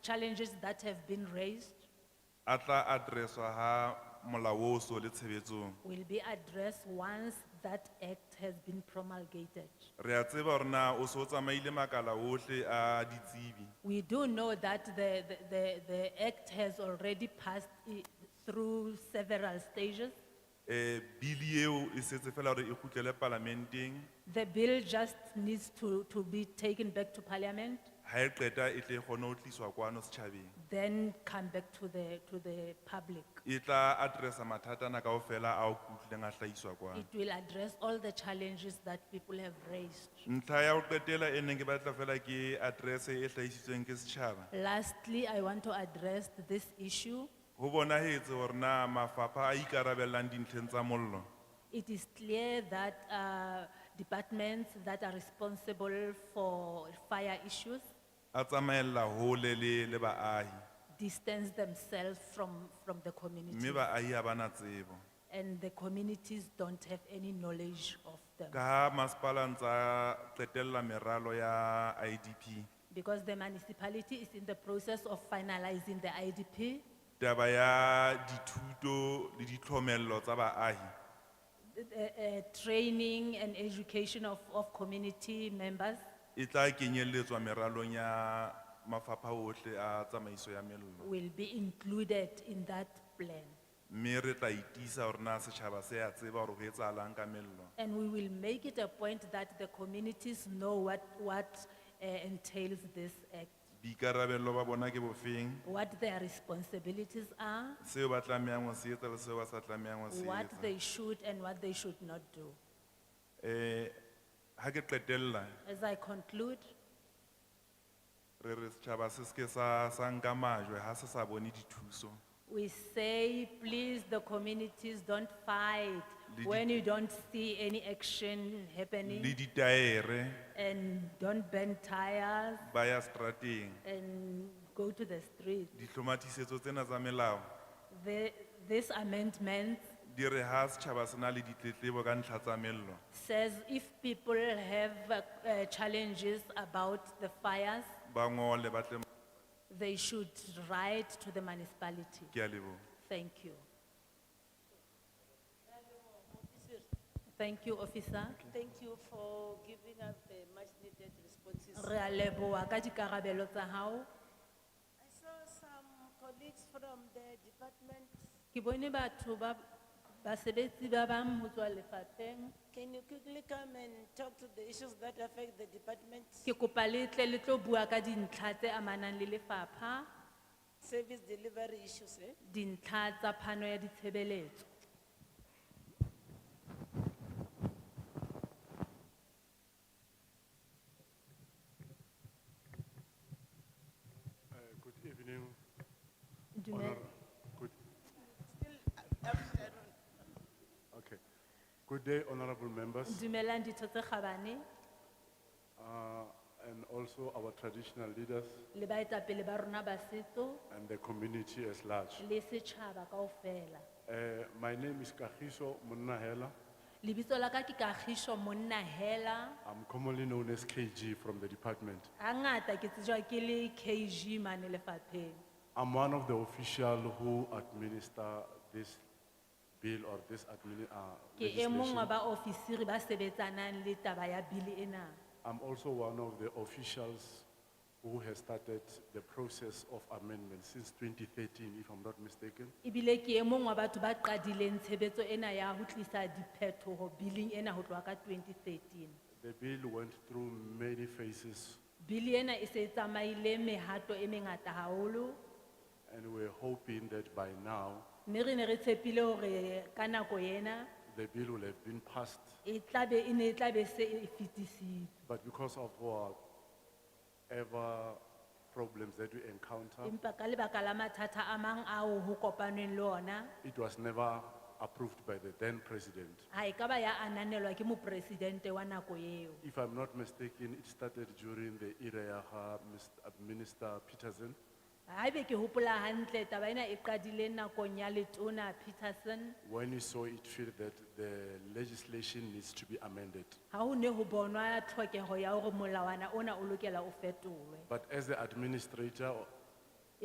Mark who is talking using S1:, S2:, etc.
S1: challenges that have been raised
S2: Atla adreswa ha molawoso le tshebetsong.
S1: will be addressed once that act has been promulgated.
S2: Re a tseba hore na o so tsamaile makala ohle a ditsebi.
S1: We do know that the, the- the, the act has already passed i- through several stages.
S2: Eh bili eo e setse fela hore e kgutlele parlamenteng
S1: The bill just needs to, to be taken back to parliament,
S2: ha e qeta e tle e kgone ho tliswa kwano setjhabeng.
S1: then come back to the, to the public.
S2: E tla addressa mathata na kaofela a o kutlileng a hlahiswa kwano.
S1: It will address all the challenges that people have raised.
S2: Ntlha ya ho qetela e neng ke batla fela ke address e hlahisitsweng ke setjhaba.
S1: Lastly, I want to address this issue.
S2: Ho bonahetse hore na mafapha a ikarabellang dintlheng tsa mollo.
S1: It is clear that uh, departments that are responsible for fire issues
S2: a tsamaella hole le le baahi
S1: distance themselves from, from the
S2: mme
S1: community.
S2: baahi ha ba na tsebo
S1: And the communities don't have any knowledge of
S2: ka
S1: them.
S2: ha masepala ntsa qetella meralo ya idp
S1: Because the municipality is in the process of finalizing the IDP.
S2: taba ya dithuto le ditlhomello tsa baahi
S1: the- the, uh, Training and education of, of community members
S2: e tla kenyelletswa meralong ya mafapha ohle a tsamaiso ya mello
S1: will be included in that plan.
S2: mme re tla itisa hore na setjhaba se a tseba hore ho etsahalang ka mello
S1: And we will make it a point that the communities know what, what uh, entails this act,
S2: boikarabello ba bona ke bofeng
S1: what their responsibilities are,
S2: seo ba tlamehang ho se etsa le seo ba sa tlamehang ho se
S1: what
S2: etsa
S1: they should and what they should not do.
S2: um ha ke qetella
S1: As I conclude,
S2: re re setjhaba se seke sa sa nka majwe ha se sa bone dithuso
S1: we say, please, the communities, don't fight
S2: Lidi-
S1: when you don't see any action
S2: le
S1: happening
S2: ditaere
S1: and don't burn tires
S2: ba ya strateng
S1: and go to the street.
S2: dihlomathisetso tsena tsa melao
S1: The, this amendment
S2: di re ha setjhaba se na le ditletlebo ka ntlha tsa mello
S1: says if people have uh, uh, challenges about the fires,
S2: ba ngole ba tle
S1: they should write to the municipality.
S2: ke a leboha
S1: Thank you. Thank you, officer.
S3: Thank you for giving us the much needed responses.
S1: Re a leboha ka dikarabelo tsa hao.
S3: I saw some colleagues from the department.
S1: Ke bone batho ba- basebetsi ba bang ho tswa lefapheng.
S3: Can you quickly come and talk to the issues that affect the department?
S1: Ke kopa le tle le tlo bua ka dintlha tse amanang le lefapha,
S3: Service delivery issues, eh?
S1: dintlha tsa phano ya ditshebeletso.
S4: Uh, Good evening, honor,
S1: Dumela-
S4: good,
S3: Still, uh, afternoon.
S4: okay. Good day, honorable members,
S1: Dumelang ditho tse kgabane.
S4: uh, and also our traditional leaders
S1: le baetapele ba rona ba setso
S4: and the community as large.
S1: le setšhaba kaofela
S4: Uh, my name is Kagiso Munnahela.
S1: lebitso la ka ke kagišo monna hela
S4: I'm commonly known as KG from the department.
S1: gangata ke tsejwa ke le kg mane lefapheng
S4: I'm one of the official who administer this bill or this admini, uh,
S1: ke e mong wa
S4: legislation.
S1: baofisiri ba sebetsanang le taba ya bili ena
S4: I'm also one of the officials who has started the process of amendment since 2013, if I'm not mistaken.
S1: ebile ke e mong wa batho ba qadileng tshebetso ena ya ho tlisa diphetoho biling ena ho tloha ka 2013
S4: The bill went through many phases
S1: bili ena e se e tsamaile mehato e mengata haholo
S4: and we're hoping that by now,
S1: mme re ne re tshepile hore ka nako ena
S4: the bill will have been passed.
S1: e tlabe, e ne e tlabe se e fetisitswe.
S4: But because of our ever problems that we encounter,
S1: Empa ka lebaka la mathata a mang ao ho kopanweng le ona,
S4: it was never approved by the then president.
S1: ha e ka ba ya ananelwa ke mopresidente wa nako eo.
S4: If I'm not mistaken, it started during the era ya ha Mr. Minister Peterson.
S1: Haebe ke hopola hantle taba ena e qadile nakong ya letona Peterson,
S4: When he saw it fit that the legislation needs to be amended.
S1: ha ho ne ho bonwa tlhokeho ya hore molawana ona o lokela o fetolwe.
S4: But as the administrator